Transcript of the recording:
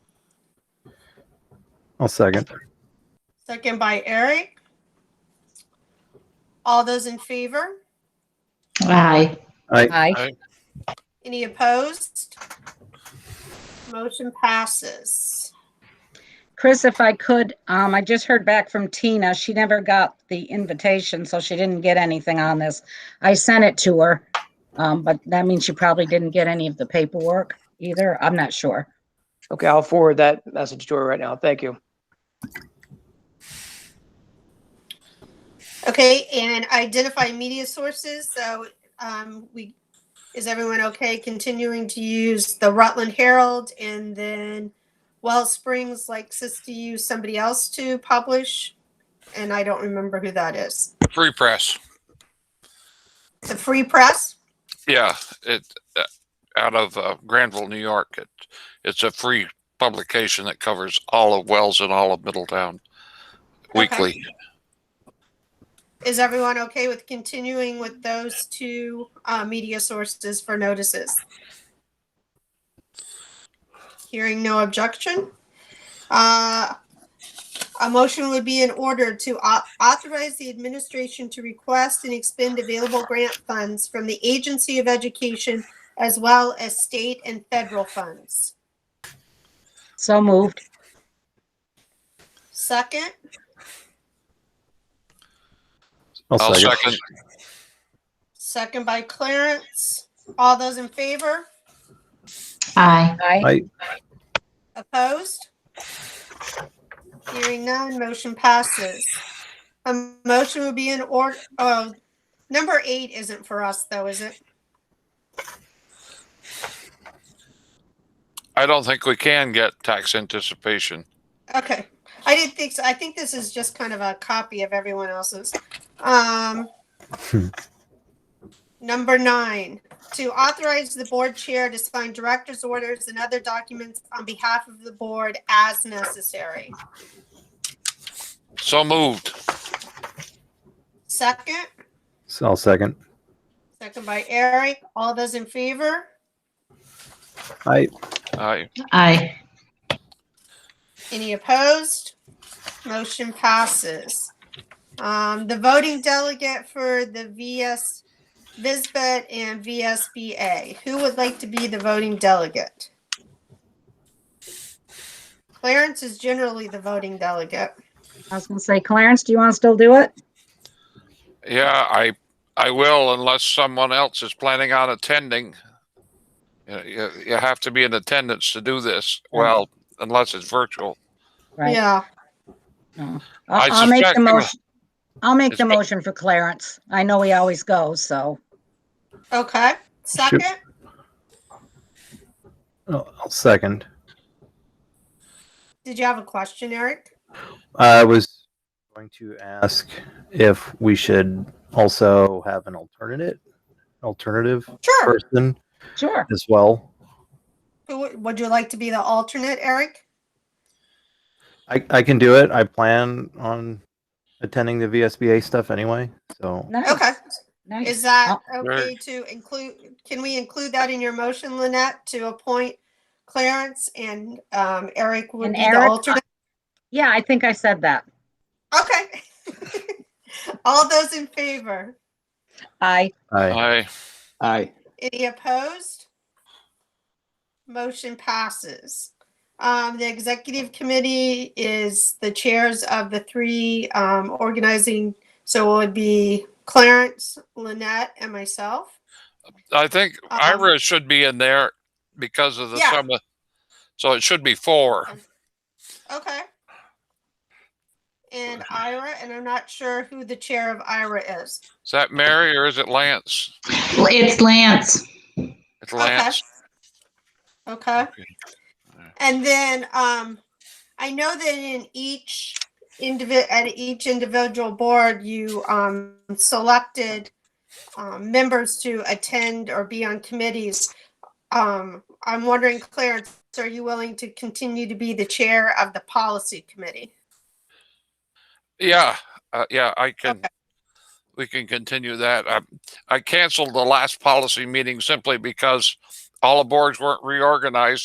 I'll second. Second by Eric. All those in favor? Aye. Aye. Any opposed? Motion passes. Chris, if I could, um, I just heard back from Tina. She never got the invitation, so she didn't get anything on this. I sent it to her, um, but that means she probably didn't get any of the paperwork either. I'm not sure. Okay, I'll forward that message to her right now. Thank you. Okay, and identify media sources, so um, we, is everyone okay continuing to use the Rutland Herald and then Wells Springs likes us to use somebody else to publish? And I don't remember who that is. Free press. The Free Press? Yeah, it uh, out of uh, Granville, New York. It it's a free publication that covers all of Wells and all of Middletown weekly. Is everyone okay with continuing with those two uh, media sources for notices? Hearing no objection. uh, A motion would be in order to au- authorize the administration to request and expend available grant funds from the Agency of Education as well as state and federal funds. So moved. Second, I'll second. second by Clarence. All those in favor? Aye. Aye. Opposed? Hearing none, motion passes. A motion would be in order, oh, number eight isn't for us though, is it? I don't think we can get tax anticipation. Okay, I didn't think so. I think this is just kind of a copy of everyone else's. Um, Hmm. number nine, to authorize the board chair to sign director's orders and other documents on behalf of the board as necessary. So moved. Second, So I'll second. second by Eric. All those in favor? Aye. I Aye. Any opposed? Motion passes. Um, the voting delegate for the VS, VISBET and VSBA. Who would like to be the voting delegate? Clarence is generally the voting delegate. I was gonna say, Clarence, do you want to still do it? yeah, I I will unless someone else is planning on attending. You, know, you, you have to be in attendance to do this. Well, unless it's virtual. Right. Yeah, I I'll I'll make suspect- the motion. I'll make the It's- motion for Clarence. I know he always goes, so. okay. Second, I'll I'll second. did you have a question, Eric? I was going to ask if we should also have an alternate, alternative Sure. person Sure. as well. Who Would would you like to be the alternate, Eric? I, I can do it. I plan on attending the VSBA stuff anyway. So Okay. Nice. Nice. Is that okay Right. to include, can we include that in your motion, Lynette, to appoint Clarence and um, Eric would And be the Eric- uh, alternate? Yeah, I think I said that. Okay. All those in favor? Aye. I, I Aye. Any opposed? Motion passes. Um, the executive committee is the chairs of the three, um, organizing. So it would be Clarence, Lynette, and myself. I think Um, Ira should be in there because of the Yeah. summer. So it should be four. Okay. And Ira, and I'm not sure who the chair of Ira is. Is that Mary or is it Lance? Well, It's Lance. It's Lance. Okay. Okay. Alright. And then, um, I know that in each individ, at each individual board, you, um, selected, um, members to attend or be on committees. Um, I'm wondering, Clarence, are you willing to continue to be the chair of the policy committee? Yeah, uh, yeah, I can. Okay. We can continue that. Um, I, I canceled the last policy meeting simply because all the boards weren't reorganized